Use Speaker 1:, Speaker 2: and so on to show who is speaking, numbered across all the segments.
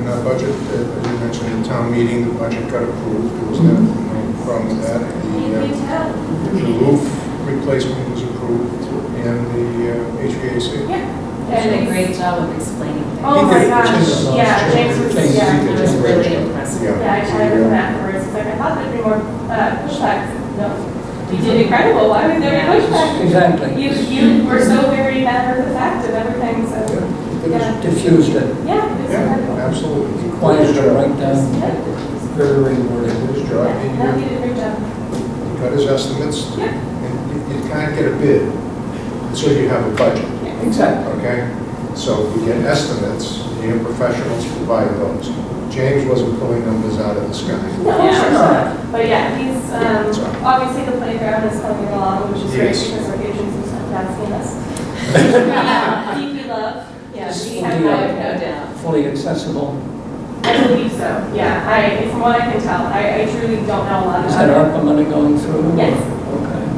Speaker 1: in our budget, as we mentioned in town meeting, the budget got approved, there was no
Speaker 2: Mm-hmm.
Speaker 1: no problem with that. The, uh, The roof replacement was approved, and the uh, HVAC.
Speaker 3: They did a great job of explaining things.
Speaker 2: Oh my gosh,
Speaker 4: Change.
Speaker 2: yeah, James was,
Speaker 4: Change.
Speaker 2: yeah.
Speaker 3: It was really impressive.
Speaker 2: Yeah, I tried
Speaker 1: uh,
Speaker 2: with that first, it's like, I thought there'd be more uh, pushbacks, no. You did incredible, why would there be pushback?
Speaker 4: Exactly.
Speaker 2: You, you were so very matter of fact and everything, so,
Speaker 4: It was diffused it,
Speaker 2: yeah, it's
Speaker 1: Yeah,
Speaker 2: incredible.
Speaker 1: absolutely.
Speaker 4: quieted it right down,
Speaker 2: Yeah,
Speaker 4: very rewarding.
Speaker 1: His job, he,
Speaker 2: Yeah, no, you did a great job.
Speaker 1: uh, got his estimates,
Speaker 2: Yeah.
Speaker 1: and you- you can't get a bid until you have a budget.
Speaker 4: Exactly.
Speaker 1: okay? So we get estimates, you have professionals provide those. James wasn't pulling numbers out of the sky.
Speaker 2: No,
Speaker 3: Yeah.
Speaker 2: sure, sure. But yeah, he's,
Speaker 1: Yeah, it's all right.
Speaker 2: um, obviously the playground is coming along, which is great
Speaker 1: Yes.
Speaker 2: because our patrons are stuff asking us. Yeah, DP love, yeah, we have
Speaker 4: Yeah.
Speaker 2: no doubt.
Speaker 4: Fully accessible.
Speaker 2: I believe so, yeah. I, from what I can tell, I, I truly don't know a lot
Speaker 4: Is that
Speaker 2: about it.
Speaker 4: ARPA money going through?
Speaker 2: Yes.
Speaker 4: Okay.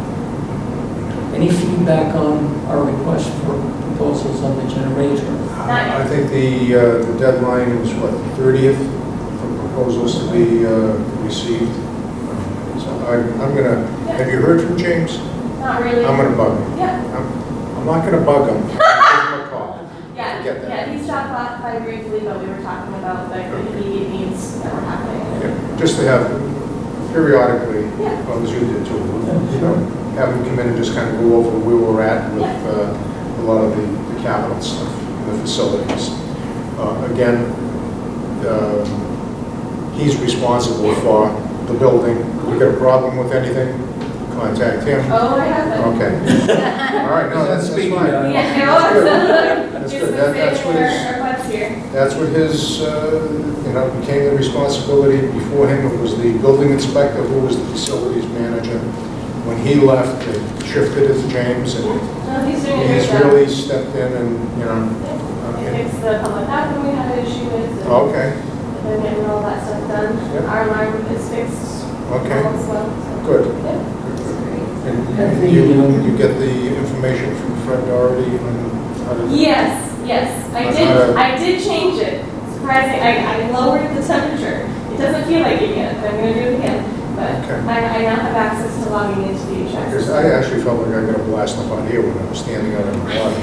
Speaker 4: Any feedback on our request for proposals on the generator?
Speaker 2: Not-
Speaker 1: I think the uh, the deadline was, what, 30th for proposals to be uh, received? So I'm I'm gonna, have you heard from James?
Speaker 2: Not really.
Speaker 1: I'm gonna bug him.
Speaker 2: Yeah,
Speaker 1: I'm I'm not gonna bug him. I'll give him a call.
Speaker 2: yeah,
Speaker 1: Get that.
Speaker 2: yeah, he's shot by, by briefly, but we were talking about like the immediate needs that were happening.
Speaker 1: Yeah, Just to have periodically,
Speaker 2: Yeah.
Speaker 1: well, as you did too, you
Speaker 4: Yeah.
Speaker 1: know, have them come in and just kind of go over where we're at with
Speaker 2: Yeah.
Speaker 1: uh, a lot of the the capital stuff, the facilities. Uh, Again, um, he's responsible for the building. If you got a problem with anything, contact him.
Speaker 2: Oh, I have it.
Speaker 1: Okay. All right, no, that's that's
Speaker 4: Speaking
Speaker 1: fine.
Speaker 4: of-
Speaker 2: Yeah, no.
Speaker 1: That's
Speaker 2: Just
Speaker 1: good. That- that's
Speaker 2: mistake
Speaker 1: what
Speaker 2: for
Speaker 1: it's-
Speaker 2: our butts here.
Speaker 1: That's what his, uh, you know, became the responsibility before him. It was the building inspector who was the facilities manager. When he left, it shifted it to James, and
Speaker 2: No, he's doing a great
Speaker 1: he's
Speaker 2: job.
Speaker 1: really stepped in and, you know,
Speaker 2: He fixed the public bathroom we had an issue with. and
Speaker 1: okay,
Speaker 2: Then getting all that stuff done.
Speaker 1: Oh. Yeah.
Speaker 2: Our alarm is fixed. All
Speaker 1: okay,
Speaker 2: is well.
Speaker 1: good.
Speaker 2: Yeah, it's great.
Speaker 1: And you, you get the information from Fred Doherty on how to...
Speaker 2: Yes, yes, I did, I did change it. Surprising, I, I lowered the temperature. It doesn't feel like it yet, but I'm gonna do it again. But
Speaker 1: Okay.
Speaker 2: I, I now have access to logging into the
Speaker 1: Because
Speaker 2: HVAC.
Speaker 1: I actually felt like I got a blast up on here when I was standing out in the lobby.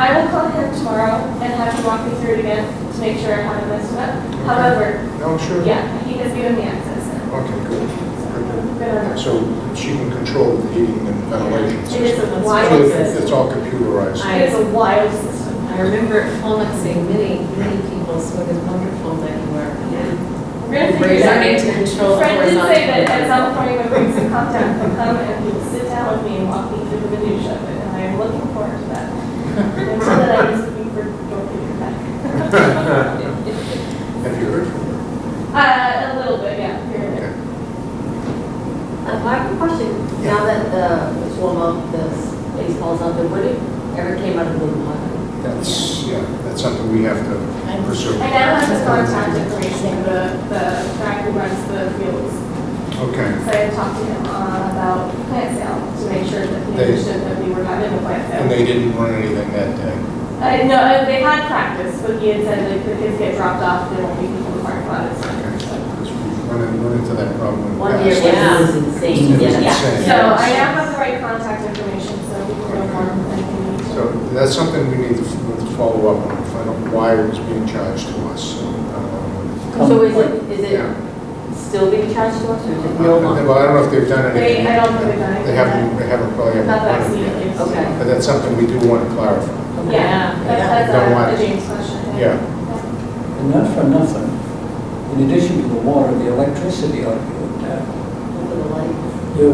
Speaker 2: I will call him tomorrow and have him walk me through it again to make sure I haven't messed it up. However,
Speaker 1: No, sure?
Speaker 2: yeah, he has given me access.
Speaker 1: Okay, good.
Speaker 2: now. Good on that.
Speaker 1: So she can control the heating and ventilation
Speaker 2: It is a
Speaker 1: So
Speaker 2: wild
Speaker 1: it's
Speaker 2: system.
Speaker 1: it's all computerized.
Speaker 2: It is a wild system.
Speaker 3: I remember it flummoxing many, many people, so it was wonderful that you were
Speaker 2: We're gonna figure it out.
Speaker 3: learning to control the
Speaker 2: Fred did
Speaker 3: horizontal.
Speaker 2: say that at some point when things have calmed down, he'll come and he'll sit down with me and walk me through the minutia of it, and I am looking forward to that. Until then, I'm just looking for Dorothy to come back.
Speaker 1: Have you heard from her?
Speaker 2: Uh, a little bit, yeah, here and there.
Speaker 5: Uh, My question, now that the, it's warm up, the baseball's out there, would it ever came out of the water?
Speaker 1: That's, yeah, that's something we have to pursue.
Speaker 2: I now have his contact information, the, the guy who runs the fields,
Speaker 1: Okay.
Speaker 2: so I had talked to him uh, about plant sale, to make sure that he
Speaker 1: They-
Speaker 2: understood that we were having a plant sale.
Speaker 1: And they didn't run anything that day.
Speaker 2: Uh, no, uh, they had practice, but he had said like the kids get dropped off, there won't be people in the parking lot. it's-
Speaker 1: Okay.
Speaker 2: so-
Speaker 1: Because we've run in- run into that problem. in the
Speaker 5: One year,
Speaker 1: past.
Speaker 3: yeah.
Speaker 5: it was
Speaker 1: It
Speaker 5: insane,
Speaker 1: was
Speaker 2: Yeah,
Speaker 5: yeah.
Speaker 1: Same.
Speaker 2: so I now have the right contact information, so we can go forward and we need
Speaker 1: So
Speaker 2: to.
Speaker 1: that's something we need to f- to follow up on, find out why it was being charged to us. So, um,
Speaker 5: So is it, is
Speaker 1: Yeah.
Speaker 5: it still being charged to us, or is it
Speaker 1: Well,
Speaker 5: no longer?
Speaker 1: I don't know if they've done
Speaker 2: They-
Speaker 1: anything.
Speaker 2: I don't think they've done
Speaker 1: They
Speaker 2: anything
Speaker 1: haven't, they haven't probably.
Speaker 2: yet. Not
Speaker 1: haven't done
Speaker 2: that
Speaker 1: it yet.
Speaker 2: immediate.
Speaker 5: Okay.
Speaker 1: But that's something we do want to clarify.
Speaker 2: Yeah,
Speaker 3: Yeah.
Speaker 2: that's,
Speaker 1: Don't want it.
Speaker 2: that's a- a James question.
Speaker 1: Yeah.
Speaker 4: And not for nothing, in addition to the water, the electricity uh, ought to be looked at.
Speaker 5: Over the light.
Speaker 4: You,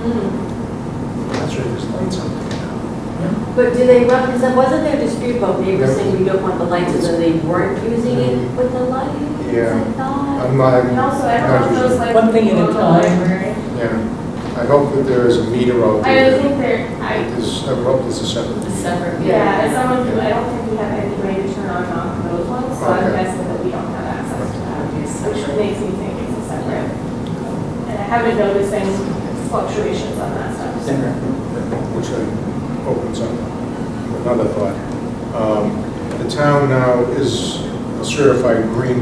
Speaker 2: Mhm.
Speaker 1: That's right, there's lights on there now.
Speaker 2: Uh,
Speaker 5: But do they represent, wasn't there a dispute about neighbors
Speaker 1: Yeah.
Speaker 5: saying we don't want the lights, and then they weren't using it with the light?
Speaker 1: Yeah. Um,
Speaker 5: I thought.
Speaker 1: I'm not,
Speaker 2: And also, I don't know if those like.
Speaker 4: One thing at a
Speaker 2: people in the
Speaker 4: time.
Speaker 2: library-
Speaker 1: yeah, I hope that there is a meter out
Speaker 2: I
Speaker 1: there.
Speaker 2: don't think there, I,
Speaker 1: There's, I hope there's a separate.
Speaker 3: a separate.
Speaker 2: yeah, as someone who, I don't think we have any way to turn on and off those ones, so I'm
Speaker 1: Okay.
Speaker 2: guessing that we don't have access to that. which
Speaker 3: Obviously.
Speaker 2: makes me think it's a separate. And I haven't noticed any fluctuations on that stuff. so.
Speaker 1: which uh, opens up another thought. Um, The town now is a certified green